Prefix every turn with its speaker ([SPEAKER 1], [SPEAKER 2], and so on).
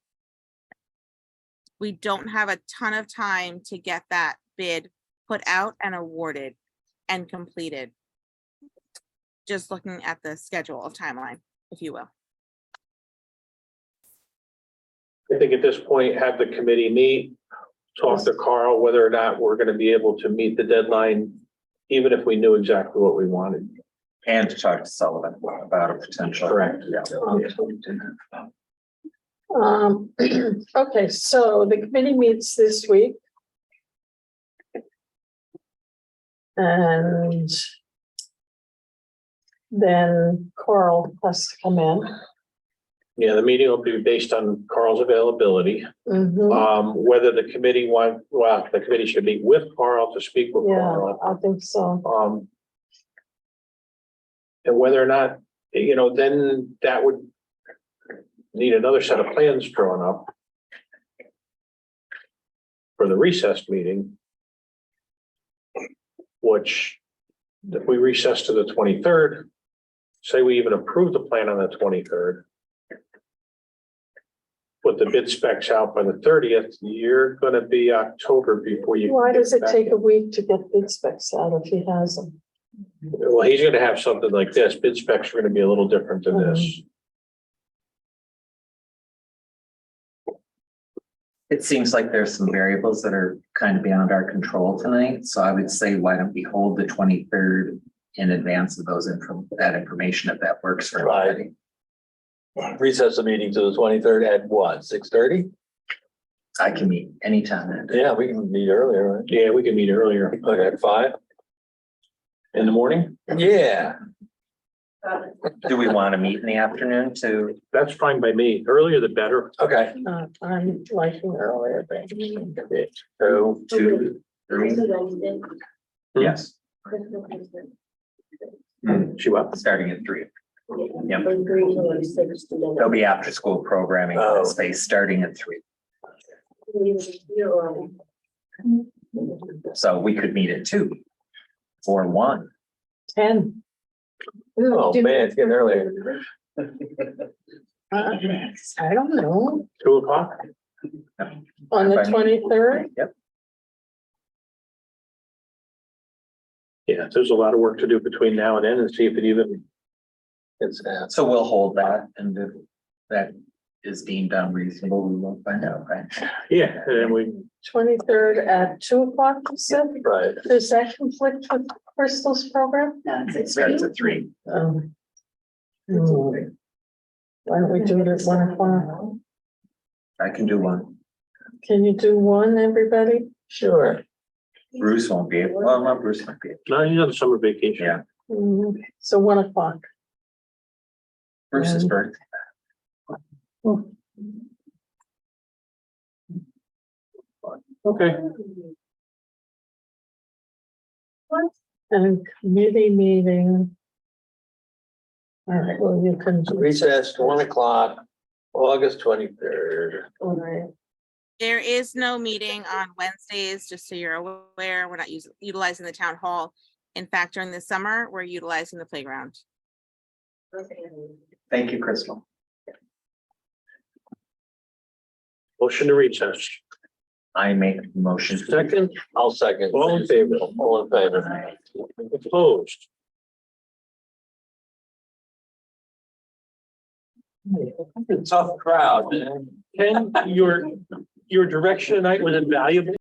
[SPEAKER 1] we don't have a ton of time to get that bid put out and awarded and completed. Just looking at the schedule of timeline, if you will.
[SPEAKER 2] I think at this point, have the committee meet, talk to Carl whether or not we're gonna be able to meet the deadline, even if we knew exactly what we wanted.
[SPEAKER 3] And to talk to Sullivan about a potential.
[SPEAKER 2] Correct.
[SPEAKER 3] Yeah.
[SPEAKER 4] Um, okay, so the committee meets this week. And then Coral has to come in.
[SPEAKER 2] Yeah, the meeting will be based on Carl's availability,
[SPEAKER 4] Mhm,
[SPEAKER 5] Mm-hmm.
[SPEAKER 2] um, whether the committee want, well, the committee should meet with Carl to speak with
[SPEAKER 4] Yeah,
[SPEAKER 2] Carl.
[SPEAKER 4] I think so.
[SPEAKER 2] Um. And whether or not, you know, then that would. Need another set of plans drawn up. For the recessed meeting. Which, if we recess to the twenty-third. Say we even approve the plan on the twenty-third. Put the bid specs out by the thirtieth, you're gonna be October before you.
[SPEAKER 4] Why
[SPEAKER 2] can get
[SPEAKER 4] does it
[SPEAKER 2] back
[SPEAKER 4] take a week to get bid specs out if he has them?
[SPEAKER 2] well, he's gonna have something like this. Bid specs are gonna be a little different than this.
[SPEAKER 3] It seems like there's some variables that are kind of beyond our control tonight, so I would say why don't we hold the twenty-third in advance of those inform, that information if that works for
[SPEAKER 5] Right.
[SPEAKER 3] everybody.
[SPEAKER 5] recess the meeting to the twenty-third at what, six thirty?
[SPEAKER 3] I can meet anytime that day.
[SPEAKER 5] Yeah, we can meet earlier, right?
[SPEAKER 2] Yeah, we can meet earlier
[SPEAKER 5] Okay, at five?
[SPEAKER 2] in the morning.
[SPEAKER 5] Yeah,
[SPEAKER 3] Do we want to meet in the afternoon to,
[SPEAKER 2] That's fine by me. Earlier the better.
[SPEAKER 5] okay.
[SPEAKER 4] Uh, I'm liking earlier, but
[SPEAKER 3] oh, two, three? Yes,
[SPEAKER 2] She what?
[SPEAKER 3] starting at three. Yep. There'll
[SPEAKER 6] They'll
[SPEAKER 3] be after-school programming in
[SPEAKER 5] Oh.
[SPEAKER 3] the space starting at three, so we could meet at two or one.
[SPEAKER 4] ten.
[SPEAKER 5] Oh, man, it's getting earlier.
[SPEAKER 4] Uh, I don't know,
[SPEAKER 2] Two o'clock?
[SPEAKER 4] on the
[SPEAKER 3] Fine.
[SPEAKER 4] twenty-third?
[SPEAKER 3] Yep,
[SPEAKER 2] Yeah, there's a lot of work to do between now and then and see if it even,
[SPEAKER 5] It's, uh,
[SPEAKER 3] so we'll hold that and if that is deemed unreasonable, we won't find out, right?
[SPEAKER 2] yeah, and then we,
[SPEAKER 4] Twenty-third at two o'clock, you said?
[SPEAKER 5] right,
[SPEAKER 4] Does that conflict with Crystal's program?
[SPEAKER 3] It starts at three.
[SPEAKER 4] Um, hmm, Why don't we do it at one o'clock?
[SPEAKER 3] I can do one.
[SPEAKER 4] Can you do one, everybody?
[SPEAKER 5] sure.
[SPEAKER 3] Bruce won't be, able- well, not Bruce might be. able-
[SPEAKER 2] no, he's on summer vacation.
[SPEAKER 3] Yeah,
[SPEAKER 4] Hmm, So one o'clock.
[SPEAKER 3] Bruce's birthday.
[SPEAKER 2] Okay,
[SPEAKER 4] And committee meeting. All right, well, you can. do-
[SPEAKER 5] Recess, one o'clock, August twenty-third.
[SPEAKER 4] All right.
[SPEAKER 1] There is no meeting on Wednesdays, just so you're aware. We're not us- utilizing the town hall. In fact, during the summer, we're utilizing the playground.
[SPEAKER 3] Thank you, Crystal.
[SPEAKER 2] motion to recess.
[SPEAKER 3] I make a motion.
[SPEAKER 5] Second, I'll second.
[SPEAKER 2] All in favor?
[SPEAKER 5] All in favor.
[SPEAKER 2] Closed.
[SPEAKER 5] Tough crowd, man.
[SPEAKER 2] Ken, your, your direction tonight was invaluable.